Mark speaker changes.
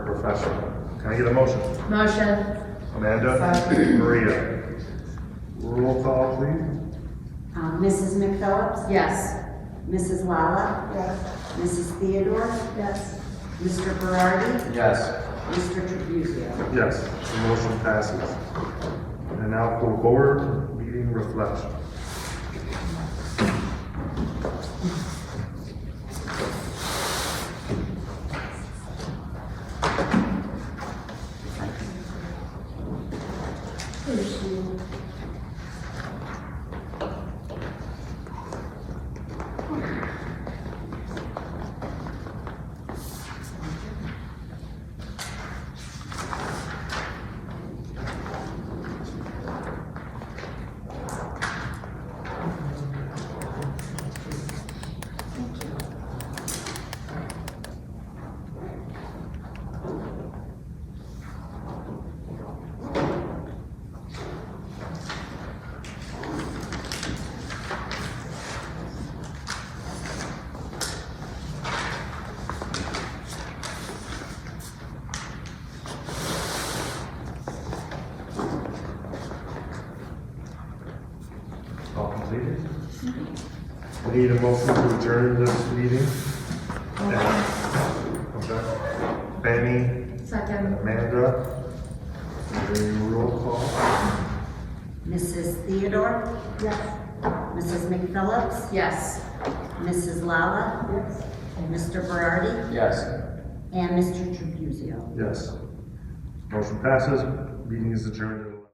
Speaker 1: Professor. Can I get a motion?
Speaker 2: Motion.
Speaker 1: Amanda, Maria. Roll call, please.
Speaker 3: Um, Mrs. McPhillips?
Speaker 2: Yes.
Speaker 3: Mrs. Lala? Yes. Mrs. Theodore?
Speaker 2: Yes.
Speaker 3: Mr. Berardi?
Speaker 4: Yes.
Speaker 3: Mr. Trabuzio?
Speaker 1: Yes, the motion passes. And now for board meeting reflection. All completed? We Need a motion to adjourn this meeting? Okay. Benny,
Speaker 2: Second.
Speaker 1: Amanda, and then roll call.
Speaker 3: Mrs. Theodore?
Speaker 2: Yes.
Speaker 3: Mrs. McPhillips?
Speaker 2: Yes.
Speaker 3: Mrs. Lala? Yes. Mr. Berardi?
Speaker 4: Yes.
Speaker 3: And Mr. Trabuzio?
Speaker 1: Yes. Motion passes, meeting is adjourned.